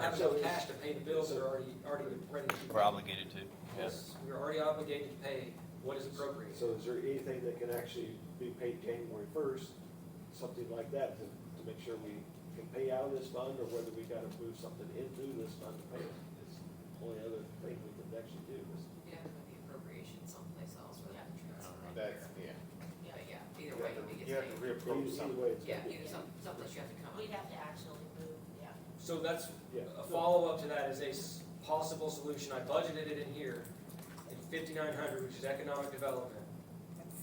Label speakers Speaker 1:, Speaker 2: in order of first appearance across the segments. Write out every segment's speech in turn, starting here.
Speaker 1: have no cash to pay the bills that are already, already been ready. to be
Speaker 2: We're
Speaker 1: paid.
Speaker 2: obligated to,
Speaker 1: Yes,
Speaker 2: yes.
Speaker 1: we're already obligated to pay what is appropriate.
Speaker 3: So is there anything that can actually be paid January first, something like that, to, to make sure we can pay out of this fund, or whether we gotta move something into this fund to pay it? It's the only other thing we can actually do is,
Speaker 4: Yeah, put the appropriation someplace else for that transfer right there.
Speaker 5: That's, yeah.
Speaker 4: But yeah, either
Speaker 5: You
Speaker 4: way,
Speaker 5: have
Speaker 4: we
Speaker 5: to,
Speaker 4: get
Speaker 5: you have to
Speaker 4: paid.
Speaker 5: reapprove
Speaker 3: either- either
Speaker 5: something.
Speaker 3: way, it's
Speaker 4: Yeah,
Speaker 3: gonna be.
Speaker 4: either some, someplace you have to come
Speaker 6: We'd
Speaker 4: up.
Speaker 6: have to actually move, yeah.
Speaker 1: So that's,
Speaker 3: Yeah.
Speaker 1: a follow-up to that is a s- possible solution. I budgeted it in here in fifty-nine hundred, which is economic development.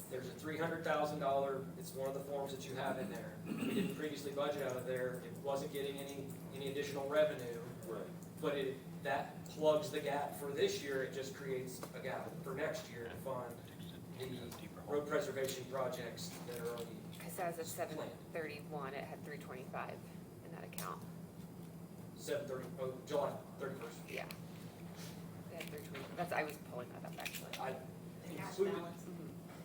Speaker 1: There's a three hundred thousand dollar, it's one of the forms that you have in there. We didn't previously budget out of there. It wasn't getting any, any additional revenue.
Speaker 3: Right.
Speaker 1: But it, that plugs the gap for this year, it just creates a gap for next year to fund road preservation projects that are already,
Speaker 7: Because as of seven thirty-one, it had three twenty-five in that account,
Speaker 1: seven thirty, oh, July thirty-first.
Speaker 7: yeah. It had three twenty, that's, I was pulling that up actually.
Speaker 1: I
Speaker 6: The cash
Speaker 1: included,
Speaker 6: balance.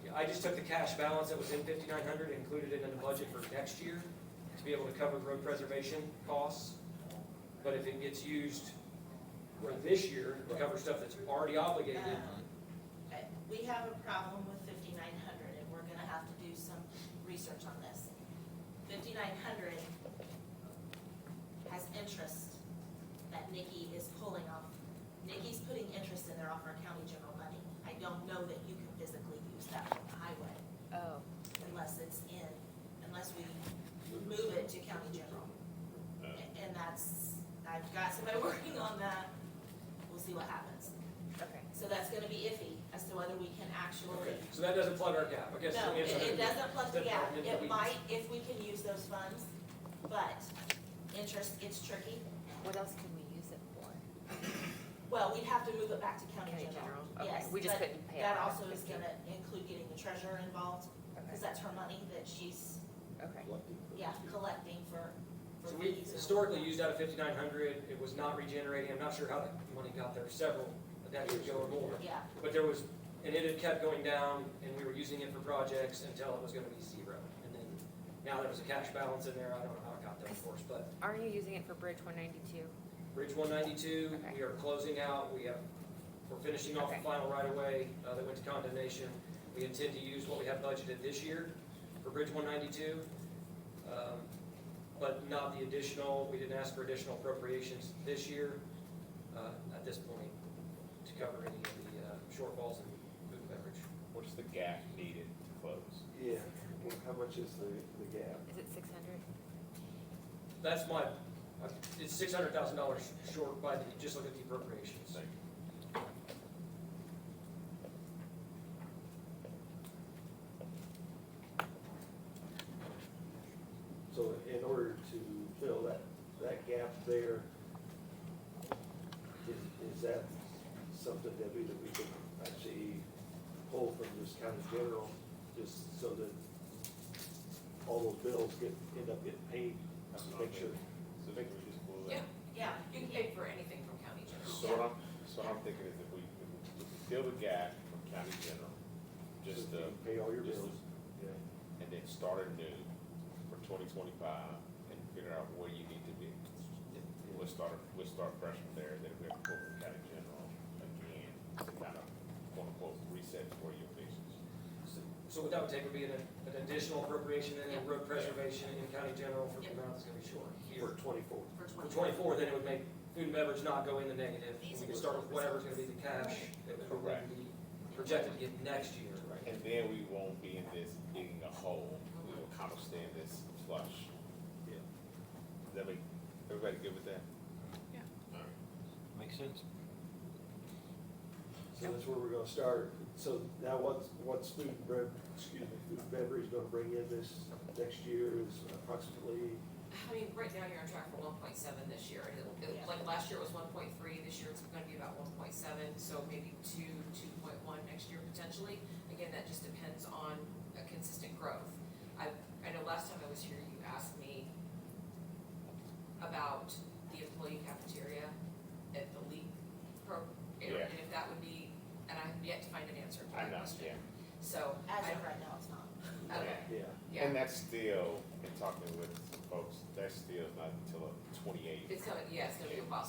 Speaker 1: yeah, I just took the cash balance that was in fifty-nine hundred, and included it in the budget for next year to be able to cover road preservation costs. But if it gets used for this year, to cover stuff that's already obligated,
Speaker 6: Um, I- We have a problem with fifty-nine hundred, and we're gonna have to do some research on this. Fifty-nine hundred has interest that Nikki is pulling off. Nikki's putting interest in there off our county general money. I don't know that you can physically use that for the highway
Speaker 7: Oh,
Speaker 6: unless it's in, unless we move it to county general. A- And that's, I've got somebody working on that, we'll see what happens.
Speaker 7: okay.
Speaker 6: So that's gonna be iffy as to whether we can actually.
Speaker 1: okay, so that doesn't plug our gap, I guess.
Speaker 6: No,
Speaker 1: the
Speaker 6: it,
Speaker 1: answer-
Speaker 6: it doesn't plug the gap,
Speaker 1: Department that we-
Speaker 6: it might if we can use those funds, but interest gets tricky.
Speaker 7: What else can we use it for?
Speaker 6: Well, we'd have to move it back to county
Speaker 7: County
Speaker 6: general.
Speaker 7: general, okay,
Speaker 6: Yes,
Speaker 7: we just
Speaker 6: but
Speaker 7: couldn't pay it.
Speaker 6: That
Speaker 7: out of
Speaker 6: also is
Speaker 7: 50.
Speaker 6: gonna include getting the treasurer involved, cause
Speaker 7: Okay,
Speaker 6: that's her money that she's,
Speaker 7: okay,
Speaker 3: Collecting for-
Speaker 6: yeah, collecting for, for
Speaker 1: So
Speaker 6: fees.
Speaker 1: we
Speaker 6: and-
Speaker 1: historically used out of fifty-nine hundred, it was not regenerating, I'm not sure how that money got there, several decades ago or more.
Speaker 6: Yeah,
Speaker 1: But there was, and it had kept going down, and we were using it for projects until it was gonna be zero. And then, now there was a cash balance in there, I don't know how it got there, of course, but
Speaker 7: aren't you using it for Bridge one ninety-two?
Speaker 1: Bridge one ninety-two, we are closing out, we have, we're finishing off the
Speaker 7: Okay.
Speaker 1: final right-of-way, uh, that went to condemnation. We intend to use what we have budgeted this year for Bridge one ninety-two, um, but not the additional, we didn't ask for additional appropriations this year, uh, at this point, to cover any of the, uh, shortfalls in food and beverage.
Speaker 5: What's the gap needed to close?
Speaker 3: Yeah, Well, how much is the, the gap?
Speaker 7: Is it six hundred?
Speaker 1: That's my, it's six hundred thousand dollars short by the, just look at the appropriations.
Speaker 3: So in order to fill that, that gap there, is, is that something that we, that we can actually pull from this county general, just so that all those bills get, end up getting paid, to make sure.
Speaker 5: So they could just pull that.
Speaker 4: Yeah,
Speaker 6: yeah,
Speaker 4: you can pay for anything from county general.
Speaker 5: So what I'm, so what I'm thinking is if we, if we fill the gap from county general, just
Speaker 3: so
Speaker 5: the,
Speaker 3: you can Pay all your
Speaker 5: just the-
Speaker 3: bills, yeah.
Speaker 5: and then start anew for twenty twenty-five and figure out where you need to be. We'll start, we'll start fresh from there, then we have to pull from county general again, to kind of, quote unquote, reset for your patients.
Speaker 1: So what that would take would be an, an additional appropriation and then road preservation in county general for the amount that's gonna be short.
Speaker 3: For
Speaker 1: here.
Speaker 3: twenty-four,
Speaker 1: For twenty-four, then it would make food and beverage not go in the negative, and we could start with whatever's gonna be the cash that would
Speaker 5: Correct.
Speaker 1: be projected to get next year.
Speaker 5: And then we won't be in this digging a hole, we will kind of stay in this flush. Yeah. Does that make, everybody good with that?
Speaker 2: Makes sense.
Speaker 3: so that's where we're gonna start, so now what's, what's food and bev, excuse me, food and beverage gonna bring in this next year is approximately
Speaker 4: I mean, right now you're on track for one point seven this year, and it'll, it'll- like, last year it was one point three, this year it's gonna be about one point seven, so maybe two, two point one next year potentially. Again, that just depends on a consistent growth. I, I know last time I was here, you asked me about the employee cafeteria at the league pro, and
Speaker 5: Yeah.
Speaker 4: if that would be, and I have yet to find an answer to
Speaker 5: I
Speaker 4: that
Speaker 5: know,
Speaker 4: question.
Speaker 5: yeah.
Speaker 4: So,
Speaker 6: as
Speaker 4: I,
Speaker 6: of right now, it's not.
Speaker 4: okay,
Speaker 3: Yeah,
Speaker 4: yeah,
Speaker 5: And that's still, in talking with some folks, that's still not until twenty-eight.
Speaker 4: it's gonna, yeah, it's gonna be a while,